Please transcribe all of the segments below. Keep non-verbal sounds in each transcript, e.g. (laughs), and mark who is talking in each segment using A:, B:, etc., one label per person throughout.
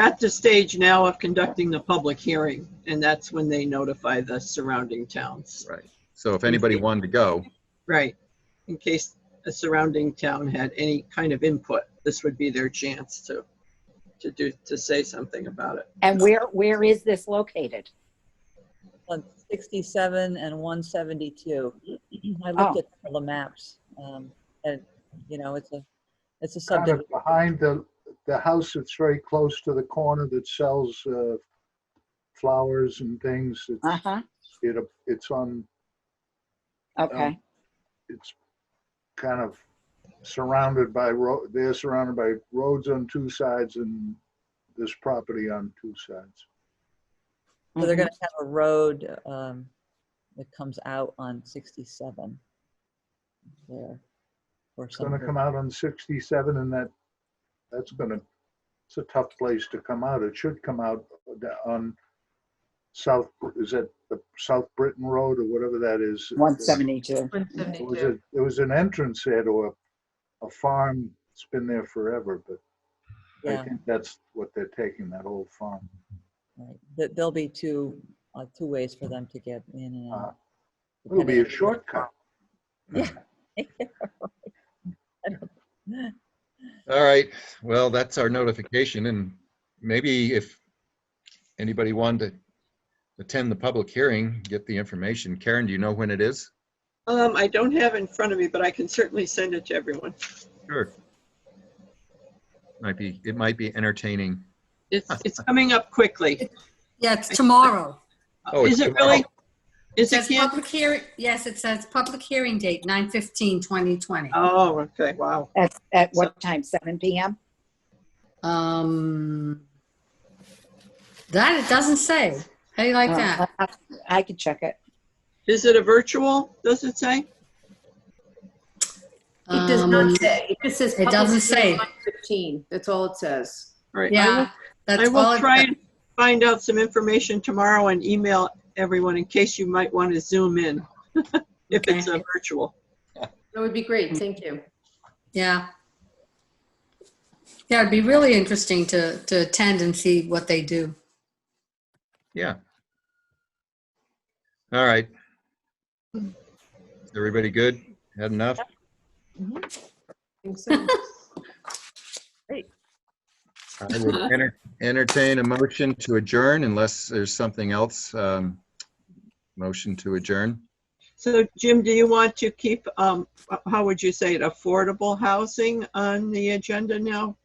A: at the stage now of conducting the public hearing, and that's when they notify the surrounding towns.
B: Right. So if anybody wanted to go,
A: Right, in case a surrounding town had any kind of input, this would be their chance to, to do, to say something about it.
C: And where, where is this located?
D: 167 and 172. I looked
C: Oh.
D: at all the maps, um, and, you know, it's a, it's a
E: kind
D: subdivision.
E: of behind the, the house that's very close to the corner that sells uh, flowers and things. It's-
C: Uh-huh,
E: It, it's on, um,
C: okay.
E: it's kind of surrounded by, ro- they're surrounded by roads on two sides and this property on two sides.
D: So
C: mm-hmm.
D: they're gonna have a road, um, that comes out on 67. There. Or
E: It's gonna
D: something.
E: come out on 67 and that, that's gonna, it's a tough place to come out. It should come out on South, is it the South Britain Road or whatever that is?
C: Mm-hmm. One seventy-two.
E: There was a, there was an entrance there to a, a farm. It's been there forever, but I
D: Yeah,
E: think that's what they're taking, that old farm.
D: right. There- There'll be two, uh, two ways for them to get in and out.
E: It'll be a
D: depending-
E: shortcut.
B: all right, well, that's our notification and maybe if anybody wanted to attend the public hearing, get the information. Karen, do you know when it is?
A: Um, I don't have it in front of me, but I can certainly send it to everyone.
B: Sure. Might be, it might be entertaining.
A: It's, it's
B: (laughs)
A: coming up quickly.
F: Yeah, it's tomorrow.
B: Oh,
A: Is
B: it's
A: it really?
F: It
A: Is it
F: says
A: Camp?
F: public hearing, yes, it says public hearing date, 9/15/2020.
A: Oh, okay, wow.
C: At, at what time? Seven PM?
F: Um, That, it doesn't say. How do you like
C: Uh,
F: that?
C: I- I could check it.
A: Is it a virtual, does it say?
G: It does not
F: Um,
G: say. It just says.
F: it doesn't say.
G: public hearing 15. That's all it says.
A: All right, I will-
F: Yeah, that's
A: I
F: all.
A: will
F: it-
A: try and find out some information tomorrow and email everyone in case you might want to zoom in. (laughs) If it's a virtual.
G: That would be great. Thank you.
F: Yeah. Yeah, it'd be really interesting to, to attend and see what they do.
B: Yeah. All right. Is Everybody good? Had enough?
G: Mm-hmm. Think so.
B: I would enter- Entertain a motion to adjourn unless there's something else. um, Motion to adjourn.
A: So Jim, do you want to keep, um, how would you say it, affordable housing on the agenda now?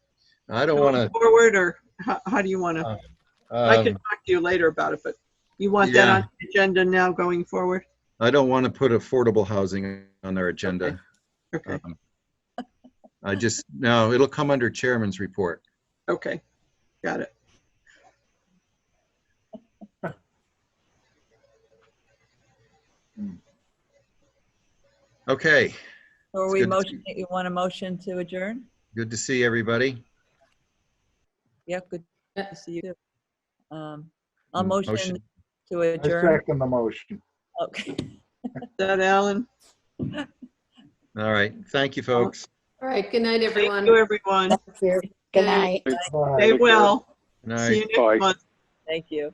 B: I don't want
A: Forward or how, how do you want to? I can
B: to,
A: talk to you later about it, but you want that
B: Um, Yeah.
A: on the agenda now going forward?
B: I don't want to put affordable housing on our agenda.
A: Okay,
B: Um, I just, no, it'll come under chairman's report.
A: okay, got it.
B: Okay,
D: (gasps) So Are
B: It's
D: we
B: good to
D: motion, you want a motion to adjourn?
B: good to see everybody.
D: Yeah, good
G: Yeah.
D: to see you. too. Um, I'll
B: Mm,
D: motion
B: motion.
D: to
E: I
D: adjourn.
E: second the motion.
D: Okay. (laughs)
A: Is that Alan?
B: All right, thank you, folks.
G: All right. Good night,
A: Thank
G: everyone.
A: you, everyone.
C: That's fair. Good night.
E: Bye.
A: Stay well.
B: Good night.
A: See you next month.
D: Thank you.